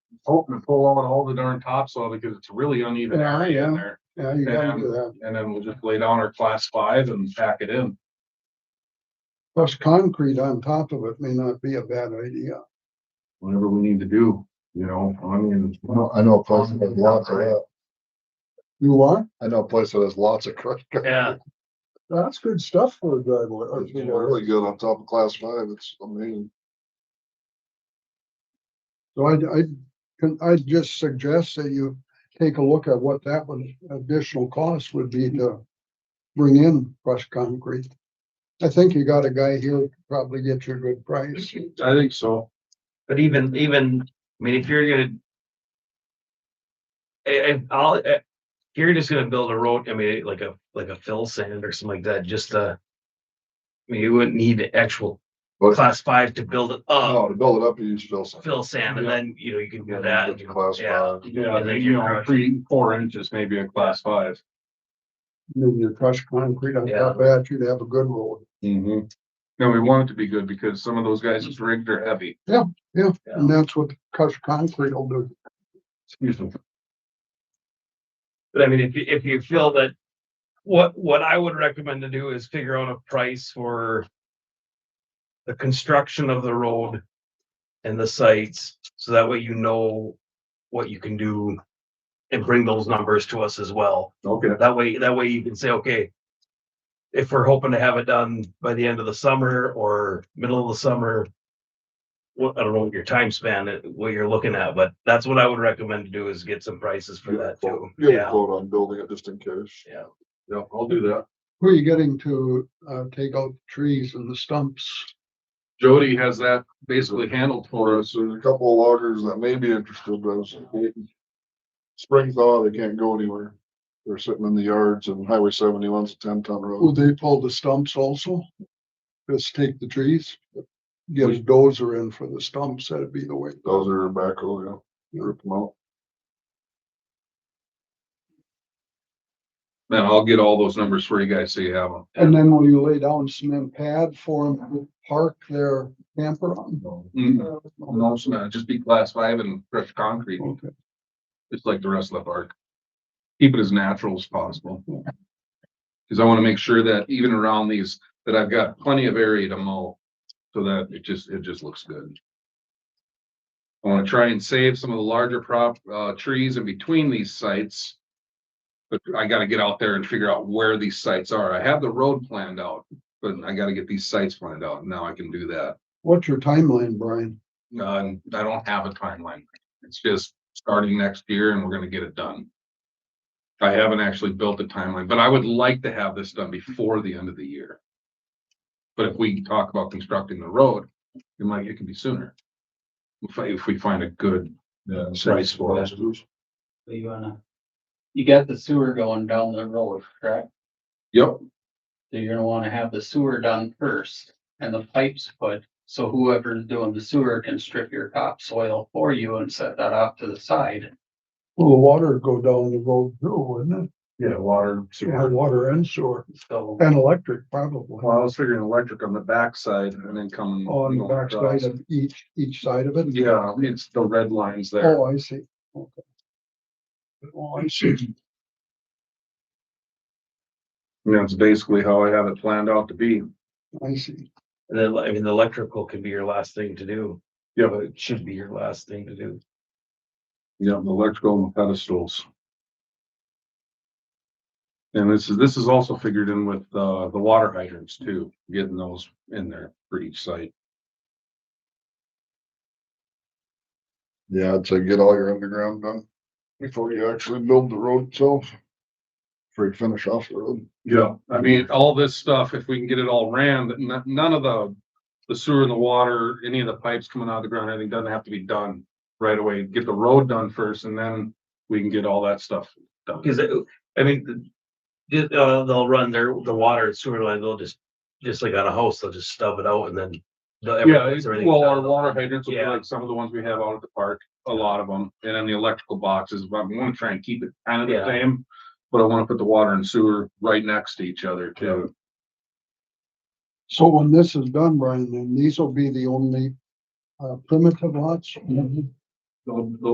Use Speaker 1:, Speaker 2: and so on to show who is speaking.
Speaker 1: hoping to pull out all the darn topsoil because it's really uneven
Speaker 2: Yeah,
Speaker 1: area in
Speaker 2: yeah.
Speaker 1: there.
Speaker 2: Yeah, you gotta do that.
Speaker 1: And then we'll just lay down our class five and pack it in.
Speaker 2: Plus concrete on top of it may not be a bad idea.
Speaker 1: Whatever we need to do, you know, I mean,
Speaker 3: Well, I know a place that has lots of that.
Speaker 2: You what?
Speaker 3: I know a place that has lots of crushed. concrete.
Speaker 1: Yeah.
Speaker 2: That's good stuff for a driveway. or
Speaker 3: It's
Speaker 2: for a-
Speaker 3: really good on top of class five. It's amazing.
Speaker 2: So I'd, I'd, can- I'd just suggest that you take a look at what that would, additional cost would be to bring in crushed concrete. I think you got a guy here who could probably get you a good price.
Speaker 1: I think so.
Speaker 4: But even, even, I mean, if you're gonna. I, I, I'll, eh, if you're just gonna build a road, I mean, like a, like a fill sand or something like that, just uh. I mean, you wouldn't need the actual
Speaker 3: But-
Speaker 4: class five to build it up,
Speaker 3: No, to build it up, you use fill sand.
Speaker 4: fill sand, and
Speaker 1: Yeah.
Speaker 4: then, you know, you can
Speaker 3: Oh. Yeah, you
Speaker 4: do that.
Speaker 3: get to class
Speaker 4: Yeah.
Speaker 3: five.
Speaker 1: Yeah,
Speaker 4: And then
Speaker 1: you
Speaker 4: you
Speaker 1: know,
Speaker 4: crush.
Speaker 1: three, four inches maybe a class five.
Speaker 2: And Then you crush concrete on top of that, you'd have a good road.
Speaker 1: Mm-hmm. No, we want it to be good because some of those guys that's rigged are heavy.
Speaker 2: Yeah, and that's what crushed concrete will do.
Speaker 1: Excuse me.
Speaker 4: But I mean, if you, if you feel that, what, what I would recommend to do is figure out a price for. The construction of the road and the sites, so that way you know what you can do. And bring those numbers to us as well.
Speaker 1: Okay.
Speaker 4: That way, that way you can say, okay. If we're hoping to have it done by the end of the summer or middle of the summer. What, I don't know what your time span, uh, what you're looking at, but that's what I would recommend to do is get some prices for
Speaker 3: Get a
Speaker 4: that too.
Speaker 3: quote- Get a
Speaker 4: Yeah.
Speaker 3: quote on building it just in case.
Speaker 4: Yeah.
Speaker 1: Yeah, I'll do that.
Speaker 2: Who are you getting to, uh, take out the trees and the stumps?
Speaker 1: Jody has that basically handled for us.
Speaker 3: So there's a couple of loggers that may be interested, but it's waiting. Spring thaw, they can't go anywhere. They're sitting in the yards and Highway seventy-one's a ten ton
Speaker 2: Will
Speaker 3: road.
Speaker 2: they pull the stumps also? Just take the trees? Get a dozer in for the stumps, that'd be the way.
Speaker 3: Those are backhoe, you know, you rip them out.
Speaker 1: Then I'll get all those numbers for you guys so you have them.
Speaker 2: And then will you lay down cement pad for them to park their camper on?
Speaker 1: Mm, No, it's not. Just be class five and fresh concrete,
Speaker 2: Okay.
Speaker 1: just like the rest of the park. Keep it as natural as possible. Cause I wanna make sure that even around these, that I've got plenty of area to mow. So that it just, it just looks good. I wanna try and save some of the larger prop, uh, trees in between these sites. But I gotta get out there and figure out where these sites are. I have the road planned out, but I gotta get these sites planned out. and Now I can do that.
Speaker 2: What's your timeline, Brian?
Speaker 1: No, and uh, I don't have a timeline. It's just starting next year and we're gonna get it done. I haven't actually built a timeline, but I would like to have this done before the end of the year. But if we talk about constructing the road, it might, it can be sooner. If, I- if we find a good
Speaker 3: Yeah.
Speaker 1: price for it.
Speaker 5: So you wanna, you got the sewer going down the road, correct?
Speaker 1: Yep,
Speaker 5: So you're gonna wanna have the sewer done first and the pipes put, so whoever's doing the sewer can strip your topsoil for you and set that off to the side.
Speaker 2: Will the water go down the road too, wouldn't it?
Speaker 1: yeah, water.
Speaker 2: Yeah, water and sewer
Speaker 5: So
Speaker 2: and electric probably.
Speaker 1: Well, I was figuring electric on the backside and then coming.
Speaker 2: Oh, On the backside of each, each side of it?
Speaker 1: Mm-hmm. Yeah, it's the red lines there.
Speaker 2: Oh, I see. Okay. Oh, I see.
Speaker 1: And That's basically how I have it planned out to be.
Speaker 2: I see.
Speaker 4: And then, I mean, the electrical can be your last thing to do.
Speaker 1: Yeah.
Speaker 4: But It should be your last thing to do.
Speaker 1: Yeah, the electrical and pedestals. And this is, this is also figured in with, uh, the water hydrants too, getting those in there for each site.
Speaker 3: Yeah, I'd say get all your underground done before you actually build the road itself. Before you finish off the road.
Speaker 1: Yeah. I mean, all this stuff, if we can get it all ran, that n- none of the, the sewer and the water, any of the pipes coming out of the ground, anything doesn't have to be done right away. Get the road done first and then we can get all that stuff done.
Speaker 4: Cause it- uh, I mean, the- the- uh, they'll run their, the water and sewer line, they'll just, just like on a house, they'll just stub it out and then. they'll-
Speaker 1: Yeah,
Speaker 4: everything's-
Speaker 1: it-
Speaker 4: everything's
Speaker 1: well,
Speaker 4: done.
Speaker 1: our water hydrants will be
Speaker 4: Yeah.
Speaker 1: like some of the ones we have out at the park, a lot of them, and then the electrical boxes, but we wanna try and keep it kind of the
Speaker 4: Yeah.
Speaker 1: same. But I wanna put the water and sewer right next to each other too.
Speaker 2: So when this is done, Brian, then these will be the only uh, primitive lots?
Speaker 1: The- the